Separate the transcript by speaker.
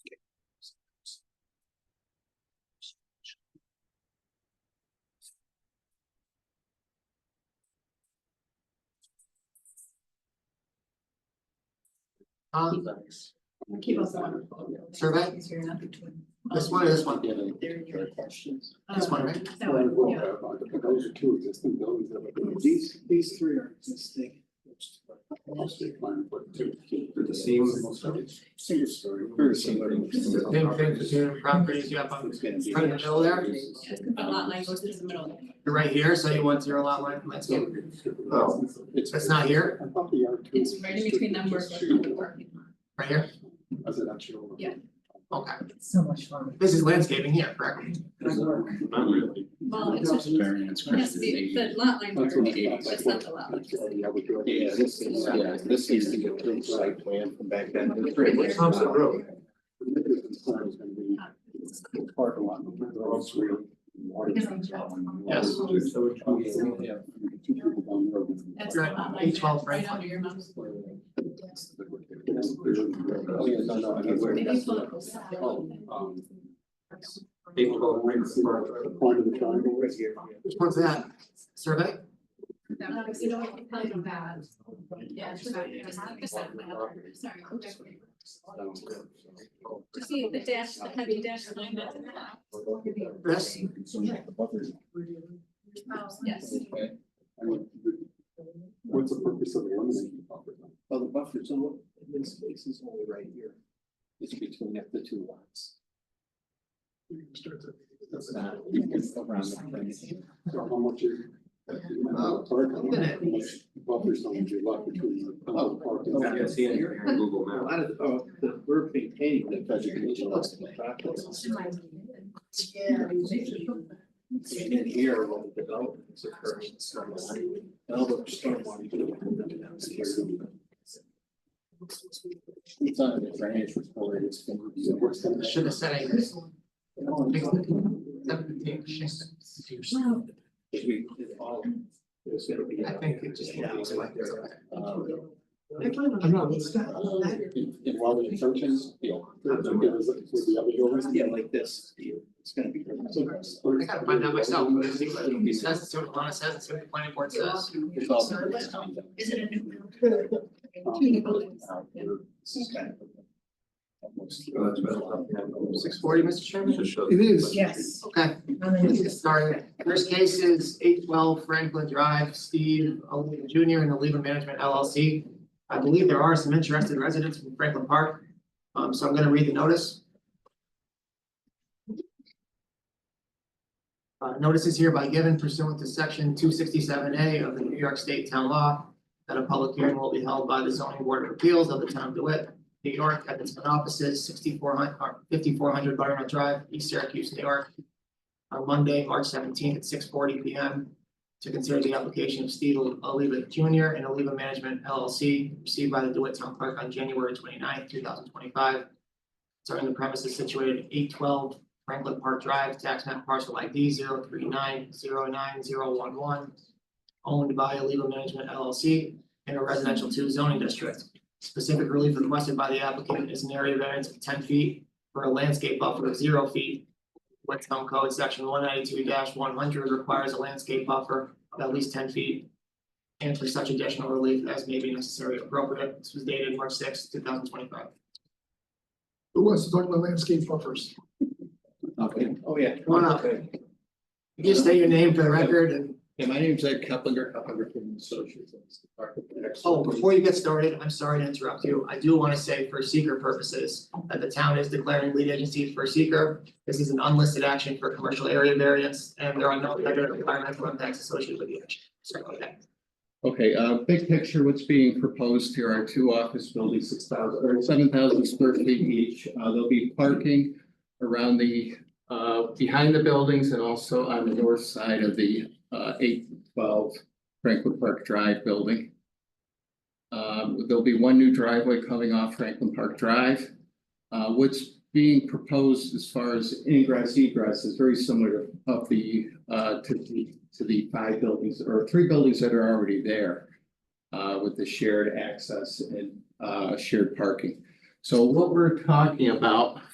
Speaker 1: Huh?
Speaker 2: Keep us wonderful.
Speaker 1: Survey? This one or this one? This one, right?
Speaker 3: Those are two existing buildings that are.
Speaker 4: These, these three are existing.
Speaker 3: They're the same. Single story. Very similar.
Speaker 1: Same thing to the properties you have on, right in the middle there,
Speaker 2: the lot line goes through the middle.
Speaker 1: you're right here, so you want zero lot line landscape,
Speaker 3: Oh.
Speaker 1: that's not here,
Speaker 3: I thought the R two.
Speaker 2: It's right in between them where. the parking lot.
Speaker 1: right here,
Speaker 3: As an actual.
Speaker 2: Yeah.
Speaker 1: okay,
Speaker 5: So much fun.
Speaker 1: this is landscaping here, correct?
Speaker 3: Not really.
Speaker 2: Well, it's just,
Speaker 6: Variance.
Speaker 2: it has to be, the lot line
Speaker 3: That's
Speaker 2: order,
Speaker 3: what I
Speaker 2: it's
Speaker 3: thought.
Speaker 2: just not the lot line.
Speaker 3: Yeah, we do.
Speaker 6: Yeah, this is, yeah, this is the approved site plan from back then. The three was-
Speaker 1: Thompson Road.
Speaker 2: Uh, it's just-
Speaker 3: Parking lot. the road's real.
Speaker 1: Yes.
Speaker 3: So it's- yeah. Two people down there.
Speaker 2: That's the
Speaker 1: You're
Speaker 2: lot
Speaker 1: at
Speaker 2: line,
Speaker 1: 812
Speaker 2: right
Speaker 1: Franklin.
Speaker 2: under your mom's.
Speaker 3: Oh, yeah, no, no, I get where.
Speaker 2: Maybe
Speaker 3: that's
Speaker 2: pull
Speaker 3: the-
Speaker 2: it closer.
Speaker 3: um,
Speaker 6: They were both right in front of
Speaker 3: The point of the triangle is here.
Speaker 1: Which one's that, survey?
Speaker 2: Uh, you know, I can tell you that. Yeah, it's about- it's like this side, my other- sorry. Just see the dash, the heavy dash line that's in that.
Speaker 1: This,
Speaker 2: Oh, Yes.
Speaker 3: I mean, the- What's the purpose of eliminating the buffer?
Speaker 4: Well, the buffer zone in this case is only right here. It's between the two lots. Uh,
Speaker 3: That's not. So how much is?
Speaker 1: Uh,
Speaker 3: Parking lot,
Speaker 1: minute.
Speaker 3: how much Buffer zone you left between the.
Speaker 4: Oh.
Speaker 3: parking lot.
Speaker 6: Yeah, see it here on Google
Speaker 4: A
Speaker 6: Maps.
Speaker 4: lot of, the- oh, the, we're maintaining the vegetation. And then here, when the development is occurring, it's not like, all the stormwater.
Speaker 3: It's on the drainage report, it's. It works on the
Speaker 1: should have said acres. Seventeen,
Speaker 4: If we did all- it's gonna be-
Speaker 1: I think it just looks like there's a-
Speaker 3: Um,
Speaker 5: I know, it's got.
Speaker 3: And and while the churches, you know, with the other buildings.
Speaker 4: Yeah, like this, it's gonna be.
Speaker 1: I gotta find out myself, but it seems like it says, it's what Alana says, it's what the planning board says.
Speaker 4: It's all-
Speaker 2: Is it a new?
Speaker 3: Um,
Speaker 2: Two new buildings.
Speaker 3: uh, This is kind of. Almost.
Speaker 6: Oh,
Speaker 3: uh,
Speaker 1: Six forty, Mr. Chairman?
Speaker 5: It is.
Speaker 7: Yes.
Speaker 1: Okay, let's get started. First case is eight twelve Franklin Drive, Steve Oliva Junior and Oliva Management LLC. I believe there are some interested residents from Franklin Park, um, so I'm gonna read the notice. Uh, notice is hereby given pursuant to section two sixty-seven A of the New York State Town Law that a public hearing will be held by the zoning board of appeals of the town of DeWitt, New York, at its offices, sixty-four hundred, or fifty-four hundred Butternut Drive, East Syracuse, New York, on Monday, March seventeenth at six forty P M. To consider the application of Steve Oliva Junior and Oliva Management LLC received by the DeWitt Town Clerk on January 29th, thousand twenty-five. Serving the premises situated at eight twelve Franklin Park Drive, tax map parcel ID 03909011, Owned by Oliva Management LLC in a residential two zoning district. Specific relief requested by the applicant is an area variance of ten feet for a landscape buffer of zero feet What's Town Code, section one ninety-two one hundred requires a landscape buffer of at least ten feet. And for such additional relief as may be necessary or appropriate, this was dated March sixth, two thousand twenty-five.
Speaker 5: Who wants to talk about landscape buffers?
Speaker 4: Okay, oh, yeah.
Speaker 1: Come on up. You Just state your name for the record and,
Speaker 4: Yeah, my name's Ed Keplinger, Keplinger from Associates. I'm the architect.
Speaker 1: oh, before you get started, I'm sorry to interrupt you. I do want to say for seeker purposes that the town is declaring lead agency for seeker. This is an unlisted action for commercial area variance and there are no other environmental impacts associated with the action. Sorry about that.
Speaker 8: Okay, uh, big picture, what's being proposed here are two office buildings, six thousand, or seven thousand square feet each. Uh, there'll be parking around the, uh, behind the buildings and also on the north side of the, uh, eight twelve Franklin Park Drive building. Um, there'll be one new driveway coming off Franklin Park Drive. Uh, what's being proposed as far as ingress egress is very similar of the, uh, to the, to the five buildings or three buildings that are already there. Uh, with the shared access and, uh, shared parking. So what we're talking about